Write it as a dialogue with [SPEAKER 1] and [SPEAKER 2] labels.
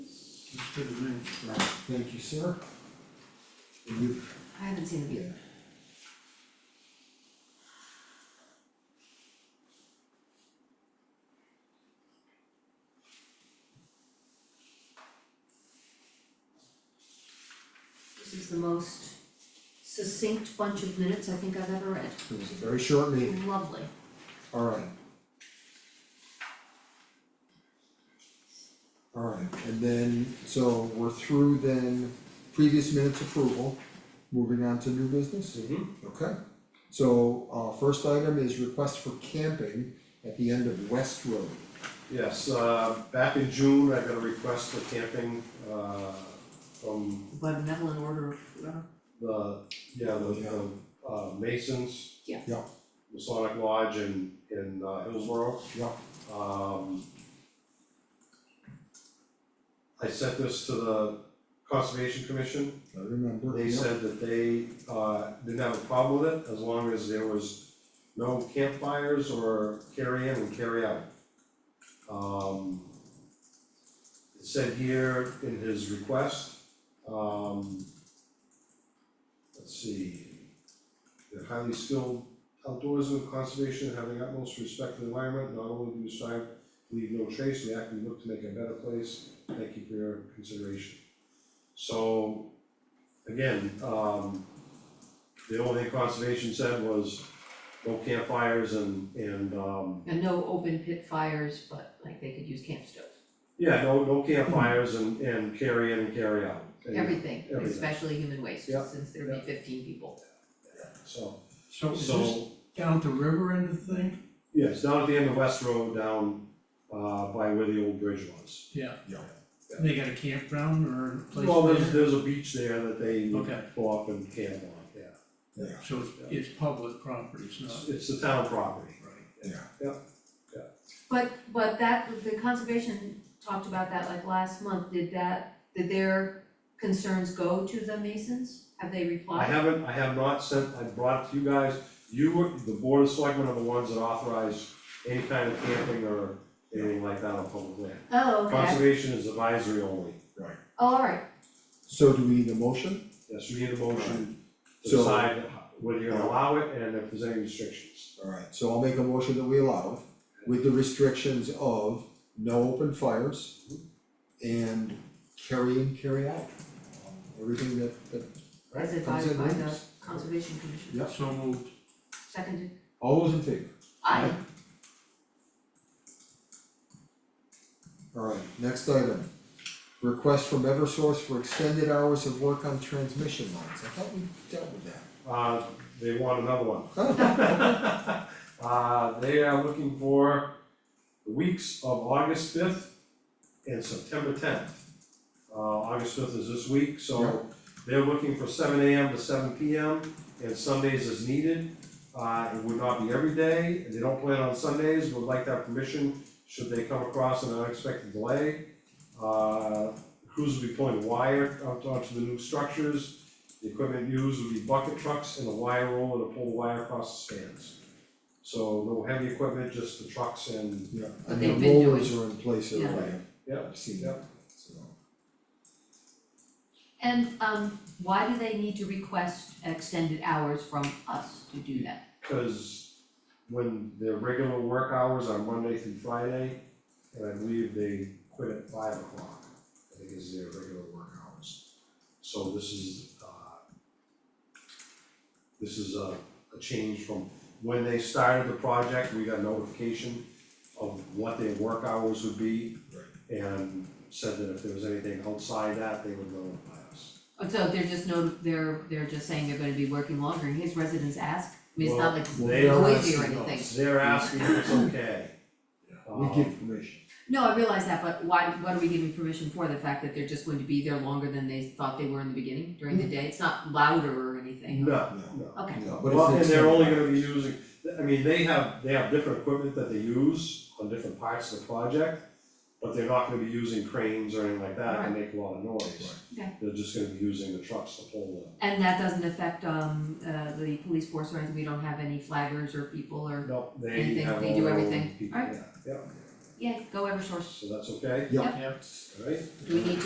[SPEAKER 1] to the minutes.
[SPEAKER 2] Right, thank you, sir. And you-
[SPEAKER 3] I haven't seen the
[SPEAKER 2] yeah.
[SPEAKER 3] view. This is the most succinct bunch of minutes I think I've ever read.
[SPEAKER 2] It was a very short meeting,
[SPEAKER 3] Lovely.
[SPEAKER 2] alright. Alright, and then, so we're through then previous minutes approval, moving on to new business?
[SPEAKER 4] Mm-hmm.
[SPEAKER 2] Okay, so uh first item is request for camping at the end of West Road.
[SPEAKER 4] Yes, uh, back in June, I got a request for camping, uh, from
[SPEAKER 3] By benevolent order of, uh,
[SPEAKER 4] the, yeah, the, the, uh, Masons.
[SPEAKER 3] Yeah.
[SPEAKER 2] Yeah.
[SPEAKER 4] Masonic Lodge in, in uh, Hillsborough.
[SPEAKER 2] Yeah.
[SPEAKER 4] Um. I sent this to the Conservation Commission,
[SPEAKER 2] I remember.
[SPEAKER 4] they
[SPEAKER 2] yeah.
[SPEAKER 4] said that they, uh, didn't have a problem with it, as long as there was no campfires or carry-in and carry-out. Um, it said here in his request, um, let's see, they're highly skilled outdoorsman, conservation, having utmost respect for the environment, not only do you strive to leave no trace, we actively look to make a better place, thank you for your consideration. So, again, um, the only thing conservation said was no campfires and, and, um,
[SPEAKER 3] and no open pit fires, but like they could use camp stoves.
[SPEAKER 4] yeah, no, no campfires and, and carry in and carry out. And
[SPEAKER 3] Everything,
[SPEAKER 4] everything.
[SPEAKER 3] especially human waste,
[SPEAKER 4] Yeah,
[SPEAKER 3] since there'd
[SPEAKER 4] yeah.
[SPEAKER 3] be fifteen people.
[SPEAKER 4] So,
[SPEAKER 1] So is this
[SPEAKER 4] so,
[SPEAKER 1] down at the river end of the thing?
[SPEAKER 4] yes, down at the end of West Road, down, uh, by where the old bridge was.
[SPEAKER 1] Yeah.
[SPEAKER 2] Yeah.
[SPEAKER 1] They got a campground or a place
[SPEAKER 4] Well, there's,
[SPEAKER 1] there?
[SPEAKER 4] there's a beach there that they
[SPEAKER 1] Okay.
[SPEAKER 4] pull up and camp on, yeah.
[SPEAKER 2] Yeah,
[SPEAKER 1] So it's, it's public property, it's
[SPEAKER 4] It's,
[SPEAKER 1] not,
[SPEAKER 4] it's the town property.
[SPEAKER 1] right,
[SPEAKER 2] yeah,
[SPEAKER 3] But but that, the conservation talked about that like last month, did that, did their concerns go to the Masons? Have they
[SPEAKER 4] I
[SPEAKER 3] replied?
[SPEAKER 4] haven't, I have not sent, I brought it to you guys, you were, the board of selectmen are the ones that authorize any kind of camping or anything like that on public land.
[SPEAKER 3] Oh, okay,
[SPEAKER 4] Conservation is advisory only,
[SPEAKER 2] right.
[SPEAKER 3] oh, alright,
[SPEAKER 2] So do we need a motion?
[SPEAKER 4] yes, you need a motion to
[SPEAKER 2] So-
[SPEAKER 4] decide whether you're gonna allow it and if there's any restrictions.
[SPEAKER 2] Alright, so I'll make a motion that we allow it with the restrictions of no open fires and carry in, carry out. Everything that that
[SPEAKER 3] as
[SPEAKER 2] comes in
[SPEAKER 3] advised by the
[SPEAKER 2] rooms.
[SPEAKER 3] conservation commission,
[SPEAKER 2] Yeah.
[SPEAKER 1] so moved,
[SPEAKER 3] seconded,
[SPEAKER 2] All those in favor?
[SPEAKER 3] aye,
[SPEAKER 2] Alright, next item. Request from Eversource for extended hours of work on transmission lines. I thought we dealt with that.
[SPEAKER 4] Uh, they want another one.
[SPEAKER 2] Oh,
[SPEAKER 4] Uh, they are looking for the weeks of August fifth and September tenth. Uh, August fifth is this week,
[SPEAKER 2] Yeah.
[SPEAKER 4] so they're looking for seven AM to seven PM and Sundays as needed. Uh, it would not be every day, and they don't plan on Sundays, would like that permission should they come across an unexpected delay. Uh, crews will be pulling wire out onto the new structures. The equipment used will be bucket trucks and a wire roller to pull the wire across the spans. So no heavy equipment, just the trucks and,
[SPEAKER 2] yeah,
[SPEAKER 3] But
[SPEAKER 2] and
[SPEAKER 3] they've
[SPEAKER 2] the
[SPEAKER 3] been
[SPEAKER 2] rollers are in place
[SPEAKER 3] Yeah.
[SPEAKER 2] already.
[SPEAKER 4] yeah,
[SPEAKER 2] I've seen
[SPEAKER 4] yeah.
[SPEAKER 2] that, so.
[SPEAKER 3] and um, why do they need to request extended hours from us to do that?
[SPEAKER 4] Cause when their regular work hours are Monday through Friday, and I believe they quit at five o'clock, I think is their regular work hours. So this is, uh, this is a, a change from when they started the project, we got notification of what their work hours would be. And said that if there was anything outside that, they would notify us.
[SPEAKER 3] Oh, So they're just no, they're they're just saying they're gonna be working longer, and his residents ask, I mean, it's not like
[SPEAKER 4] Well, they are
[SPEAKER 3] noisy or anything.
[SPEAKER 4] asking us, they're asking if it's okay.
[SPEAKER 2] We give permission.
[SPEAKER 3] No, I realize that, but why, what are we giving permission for, the fact that they're just going to be there longer than they thought they were in the beginning, during the day, it's not louder or anything?
[SPEAKER 4] Mm-hmm. No,
[SPEAKER 2] No.
[SPEAKER 4] no.
[SPEAKER 3] Okay,
[SPEAKER 2] No, but
[SPEAKER 4] Well, and
[SPEAKER 2] it's
[SPEAKER 4] they're only gonna be using, I mean, they have, they have different equipment that they use on different parts of the project, but they're not gonna be using cranes or anything like that to make a lot of noise.
[SPEAKER 3] Right. Okay.
[SPEAKER 4] They're just gonna be using the trucks to pull
[SPEAKER 3] and that doesn't affect, um, uh, the police force or anything, we don't have any flaggers or people
[SPEAKER 4] the,
[SPEAKER 3] or,
[SPEAKER 4] no, they
[SPEAKER 3] Anything,
[SPEAKER 4] have all
[SPEAKER 3] they do
[SPEAKER 4] their own
[SPEAKER 3] everything.
[SPEAKER 4] people,
[SPEAKER 3] Alright.
[SPEAKER 4] yeah, yeah,
[SPEAKER 3] yeah, go Eversource,
[SPEAKER 4] so that's okay,
[SPEAKER 2] Yeah.
[SPEAKER 1] yeah.
[SPEAKER 4] alright?
[SPEAKER 3] do we need